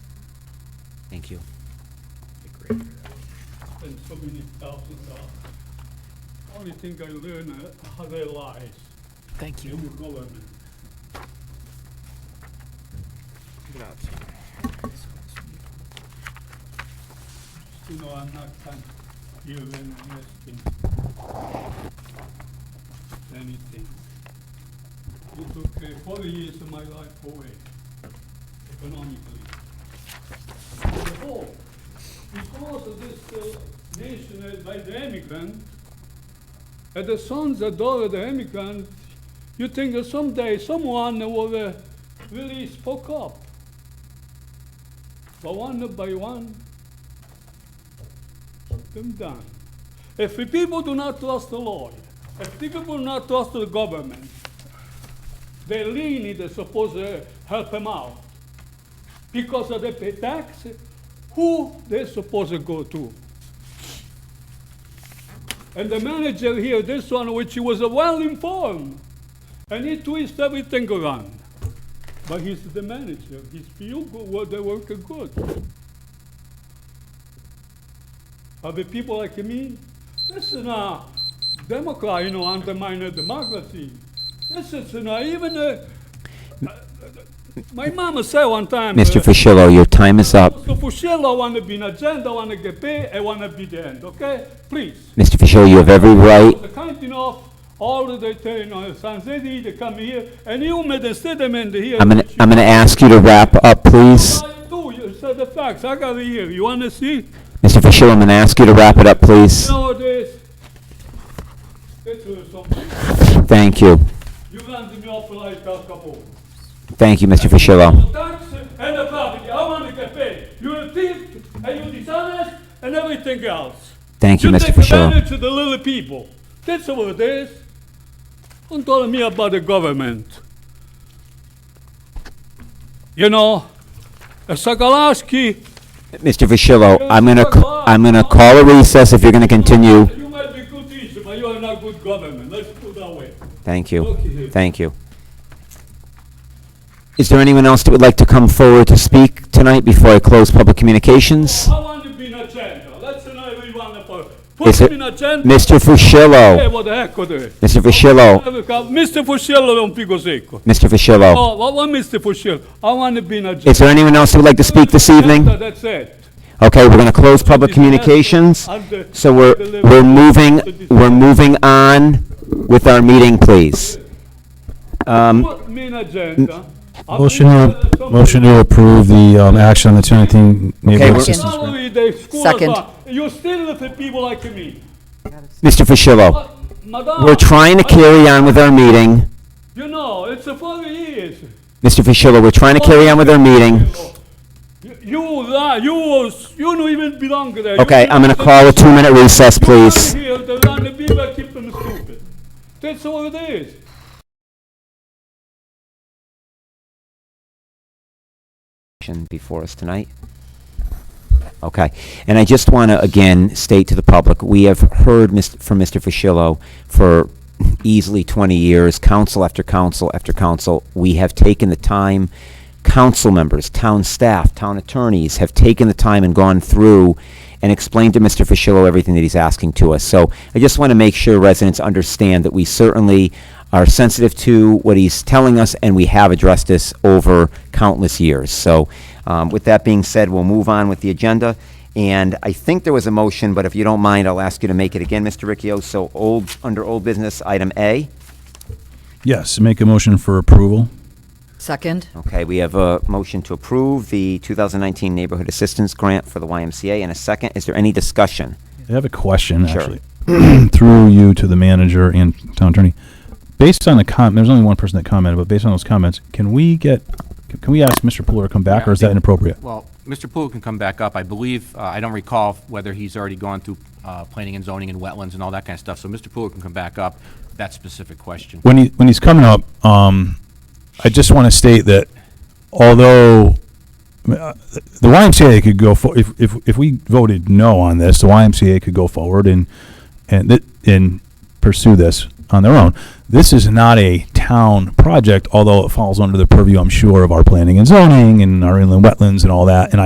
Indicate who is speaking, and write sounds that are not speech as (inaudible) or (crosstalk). Speaker 1: Thank you.
Speaker 2: and so many thousands of. Only thing I learn uh, how they lies
Speaker 3: Thank
Speaker 2: in the government. You know, I'm not trying to even asking anything. It took uh, forty years of my life away economically. The whole, because of this uh, nation uh, by the immigrant, and the sons and daughter of the immigrant, you think that someday someone will uh, really spoke up. But one by one, them down. If the people do not trust the Lord, if the people do not trust the government, they lean in the supposed uh, help them out. Because of the pay tax, who they supposed to go to? And the manager here, this one, which he was uh, well informed, and he twists everything around. But he's the manager. He's feel good, well, they work good. But the people like me, uh, this is not democrat, you know, undermine the democracy. This is not even a. My mama said one time. uh,
Speaker 1: Mr. Fischello, your time is up.
Speaker 2: Mr. Fusillo, I want to be an agenda, I want to get paid, I want to be the end, okay? Please.
Speaker 1: Mr. Fischello, you have every right.
Speaker 2: The kind enough, all of the, you know, San Zedi, they come here, and you made a statement here.
Speaker 1: I'm gonna,
Speaker 2: which you-
Speaker 1: I'm gonna ask you to wrap up, please.
Speaker 2: I do, you said the facts, I got it here, you want to see?
Speaker 1: Mr. Fischello, I'm gonna ask you to wrap it up, please.
Speaker 2: Nowadays, this is something,
Speaker 1: Thank you.
Speaker 2: you run me off like Al Capone.
Speaker 1: Thank you, Mr. Fischello.
Speaker 2: The tax and the property, I want to get paid. You're a thief, and you're dishonest, and everything else.
Speaker 1: Thank you, Mr.
Speaker 2: take
Speaker 1: Fischello.
Speaker 2: advantage of the little people. That's all it is. Don't tell me about the government. You know, uh, Sokoloski,
Speaker 1: Mr. Fischello, I'm gonna, ca- I'm gonna call a recess if you're gonna continue.
Speaker 2: you might be good teacher, but you are not good government. Let's put that way.
Speaker 1: Thank you. Thank you. Is there anyone else that would like to come forward to speak tonight before I close public communications?
Speaker 2: I want to be in agenda. Let's not everyone apart.
Speaker 1: Is
Speaker 2: Put
Speaker 1: it-
Speaker 2: me in agenda.
Speaker 1: Mr.
Speaker 2: Hey,
Speaker 1: Fischello,
Speaker 2: what the heck are they?
Speaker 1: Mr. Fischello,
Speaker 2: Mr. Fuscello è un figo secco.
Speaker 1: Mr. Fischello.
Speaker 2: Oh, what, what Mr. Fuscello? I want to be in agenda.
Speaker 1: Is there anyone else who would like to speak this evening?
Speaker 2: That's it.
Speaker 1: Okay, we're gonna close public communications. So we're, we're moving, we're moving on with our meeting, please. Um,
Speaker 2: Put me in agenda. I'll
Speaker 4: Motion,
Speaker 2: be-
Speaker 4: to- motion to approve the um, action on the Torrington
Speaker 1: Okay,
Speaker 4: Neighborhood
Speaker 1: we're-
Speaker 4: Assistance Grant.
Speaker 2: Salary, the school
Speaker 5: Second.
Speaker 2: is up. You still look at people like me.
Speaker 1: Mr. Fischello,
Speaker 2: But, Madam,
Speaker 1: we're trying to carry on with our meeting.
Speaker 2: You know, it's a forty years.
Speaker 1: Mr. Fischello, we're trying to carry on with our meeting.
Speaker 2: You, you, lie, you, was- you don't even belong there. You
Speaker 1: Okay, I'm
Speaker 2: belong
Speaker 1: gonna
Speaker 2: to
Speaker 1: call a two-minute recess,
Speaker 2: the- you
Speaker 1: please.
Speaker 2: belong here, they run the people, keep them stupid. That's all it is.
Speaker 1: action before us tonight? Okay, and I just want to again state to the public, we have heard mis- from Mr. Fischello for easily 20 years, council after council after council. We have taken the time, council members, town staff, town attorneys have taken the time and gone through and explained to Mr. Fischello everything that he's asking to us. So I just want to make sure residents understand that we certainly are sensitive to what he's telling us, and we have addressed this over countless years. So um, with that being said, we'll move on with the agenda. And I think there was a motion, but if you don't mind, I'll ask you to make it again, Mr. Riccio. So old, under old business, item A.
Speaker 4: Yes, make a motion for approval.
Speaker 5: Second.
Speaker 1: Okay, we have a motion to approve the 2019 Neighborhood Assistance Grant for the YMCA. And a second, is there any discussion?
Speaker 4: I have a question,
Speaker 1: Sure.
Speaker 4: actually. (clears throat) Through you to the manager and town attorney. Based on the com, there's only one person that commented, but based on those comments, can we get, can we ask Mr. Puller to come back, or is that inappropriate?
Speaker 6: Well, Mr. Poole can come back up. I believe, uh, I don't recall whether he's already gone through uh, planning and zoning and wetlands and all that kind of stuff, so Mr. Poole can come back up, that specific question.
Speaker 4: when he when he's coming up, um, I just want to state that although uh, the YMCA could go for if, if if we voted no on this, the YMCA could go forward and and th- and pursue this on their own. This is not a town project, although it falls under the purview, I'm sure, of our planning and zoning and our inland wetlands and all that. And